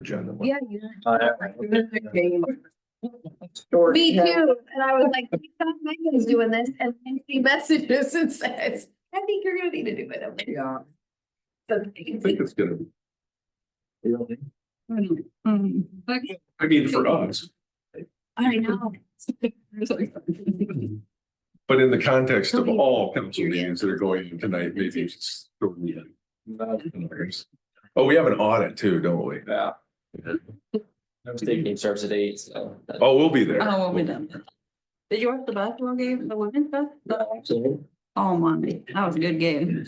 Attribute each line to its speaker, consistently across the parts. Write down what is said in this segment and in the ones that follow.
Speaker 1: agenda.
Speaker 2: Yeah, yeah. I remember
Speaker 1: I
Speaker 2: game.
Speaker 3: Me
Speaker 2: Yeah.
Speaker 3: too, and I was like, "Thank God Megan's doing this, and then she messages and says, I think you're gonna need to do it. I'm like,
Speaker 2: Yeah.
Speaker 1: think
Speaker 3: "Okay."
Speaker 1: it's gonna be.
Speaker 2: Okay,
Speaker 1: I mean, for us,
Speaker 3: Mm, I know,
Speaker 1: but in the context of all council meetings that are going on tonight, maybe it's. Oh, we have an audit too, don't we?
Speaker 4: Yeah. No state game starts at eight, so. that-
Speaker 1: Oh, we'll be there.
Speaker 5: Oh, we done. Did you watch the basketball game, the women's basketball?
Speaker 4: So,
Speaker 5: Oh, Monday, that was a good game.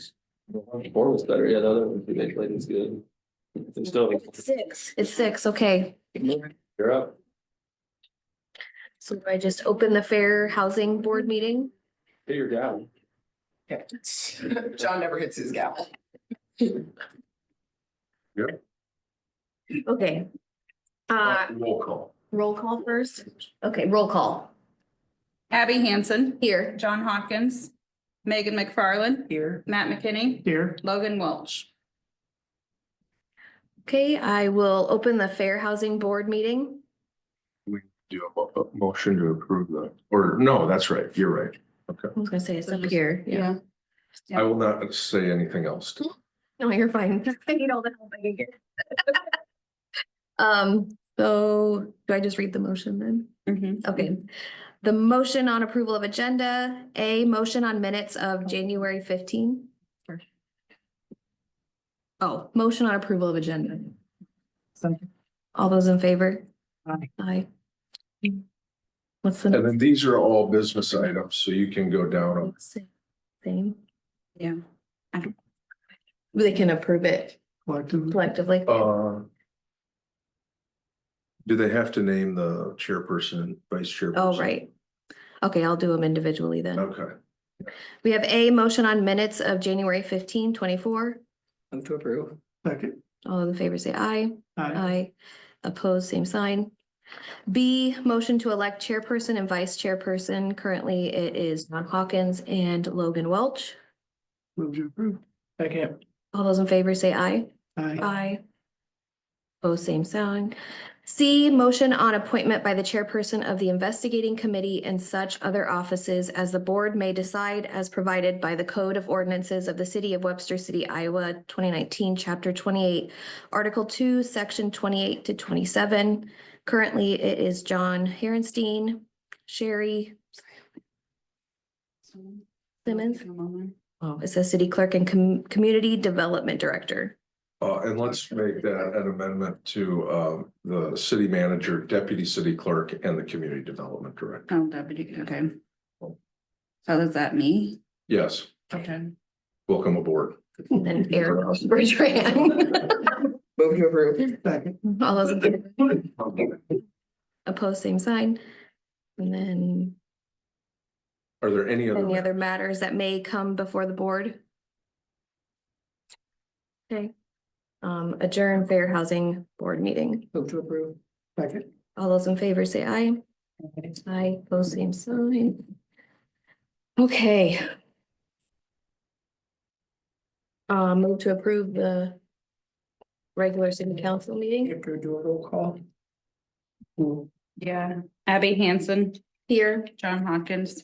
Speaker 4: Four was better, yeah, the other one, they played was good. They're still,
Speaker 3: six, it's six, okay,
Speaker 4: you're up.
Speaker 3: so do I just open the Fair Housing Board meeting.
Speaker 4: Hey, you're down.
Speaker 2: John never hits his gavel.
Speaker 3: Okay. Uh,
Speaker 1: Roll call.
Speaker 3: roll call first, okay, roll call,
Speaker 5: Abby Hansen,
Speaker 3: here.
Speaker 5: John Hopkins, Megan McFarland. Here. Matt McKinney. Here. Logan Welch.
Speaker 3: Okay, I will open the Fair Housing Board meeting.
Speaker 1: Do a mo- a motion to approve the, or no, that's right, you're right.
Speaker 3: I was gonna say it's up here, yeah.
Speaker 1: I will not say anything else.
Speaker 3: No, you're fine. I need all the help I can get. Um, so do I just read the motion then?
Speaker 5: Mhm.
Speaker 3: Okay. The motion on approval of agenda, a motion on minutes of January fifteen. Oh, motion on approval of agenda. All those in favor?
Speaker 2: Aye.
Speaker 3: Aye. What's the
Speaker 1: And
Speaker 3: next?
Speaker 1: then these are all business items, so you can go down them.
Speaker 3: one? Same.
Speaker 5: Yeah.
Speaker 3: They can approve it collectively.
Speaker 1: Uh. Do they have to name the chairperson, vice chairperson?
Speaker 3: Oh, right. Okay, I'll do them individually then.
Speaker 1: Okay,
Speaker 3: We have a motion on minutes of January 15, 24.
Speaker 2: Move to approve. Second.
Speaker 3: All those in favor say aye.
Speaker 2: Aye.
Speaker 3: Aye. Opposed, same sign. B, motion to elect chairperson and vice chairperson. Currently, it is John Hawkins and Logan Welch.
Speaker 2: Move to approve. Second.
Speaker 3: All those in favor say aye.
Speaker 2: Aye.
Speaker 3: Aye. Opposed, same sign. C, motion on appointment by the chairperson of the investigating committee and such other offices as the board may decide as provided by the Code of Ordinances of the City of Webster City, Iowa, twenty nineteen, chapter twenty-eight, article two, section twenty-eight to twenty-seven. Currently, it is John Herenstein, Sherry, Simmons?
Speaker 2: Oh.
Speaker 3: it says city clerk and com- community development director.
Speaker 1: uh, and let's make that an amendment to, um, the city manager, deputy city clerk and the community development director.
Speaker 5: Oh, deputy, okay. So is that me?
Speaker 1: Yes,
Speaker 5: Okay.
Speaker 1: welcome aboard.
Speaker 3: And then Eric Bertrand.
Speaker 2: Move to approve. Second.
Speaker 3: All those in favor? Opposed, same sign. And then
Speaker 1: Are there any other?
Speaker 3: any other matters that may come before the board? Okay. Um, adjourn Fair Housing Board meeting.
Speaker 2: Move to approve. Second.
Speaker 3: All those in favor say aye. Aye, opposed, same sign. Okay. Uh, move to approve the regular city council meeting
Speaker 2: If you do a roll call. Move.
Speaker 5: Yeah. Abby Hansen,
Speaker 3: here.
Speaker 5: John Hopkins,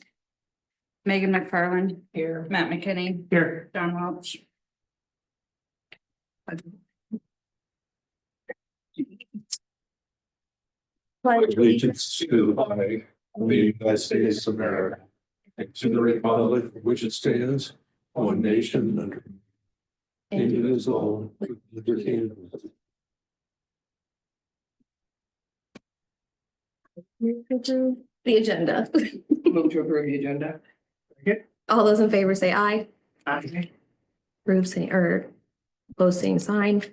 Speaker 5: Megan McFarland,
Speaker 2: Here.
Speaker 5: Matt McKinney,
Speaker 2: Here.
Speaker 5: John Welch.
Speaker 1: Allegiance to the flag of the United States of America. And to the republic for which it stands, one nation under indivisible, with liberty and justice.
Speaker 3: The agenda.
Speaker 2: Move to approve the agenda.
Speaker 3: All those in favor say aye.
Speaker 2: Aye.
Speaker 3: Approve same, or opposed, same sign.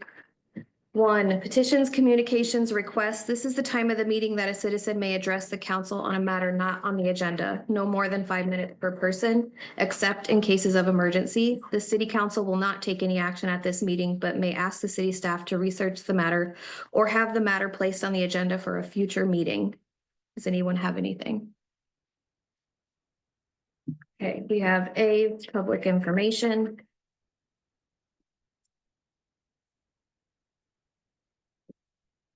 Speaker 3: One, petitions, communications, requests. This is the time of the meeting that a citizen may address the council on a matter not on the agenda, no more than five minutes per person, except in cases of emergency. The city council will not take any action at this meeting, but may ask the city staff to research the matter or have the matter placed on the agenda for a future meeting. Does anyone have anything? Okay, we have A, public information,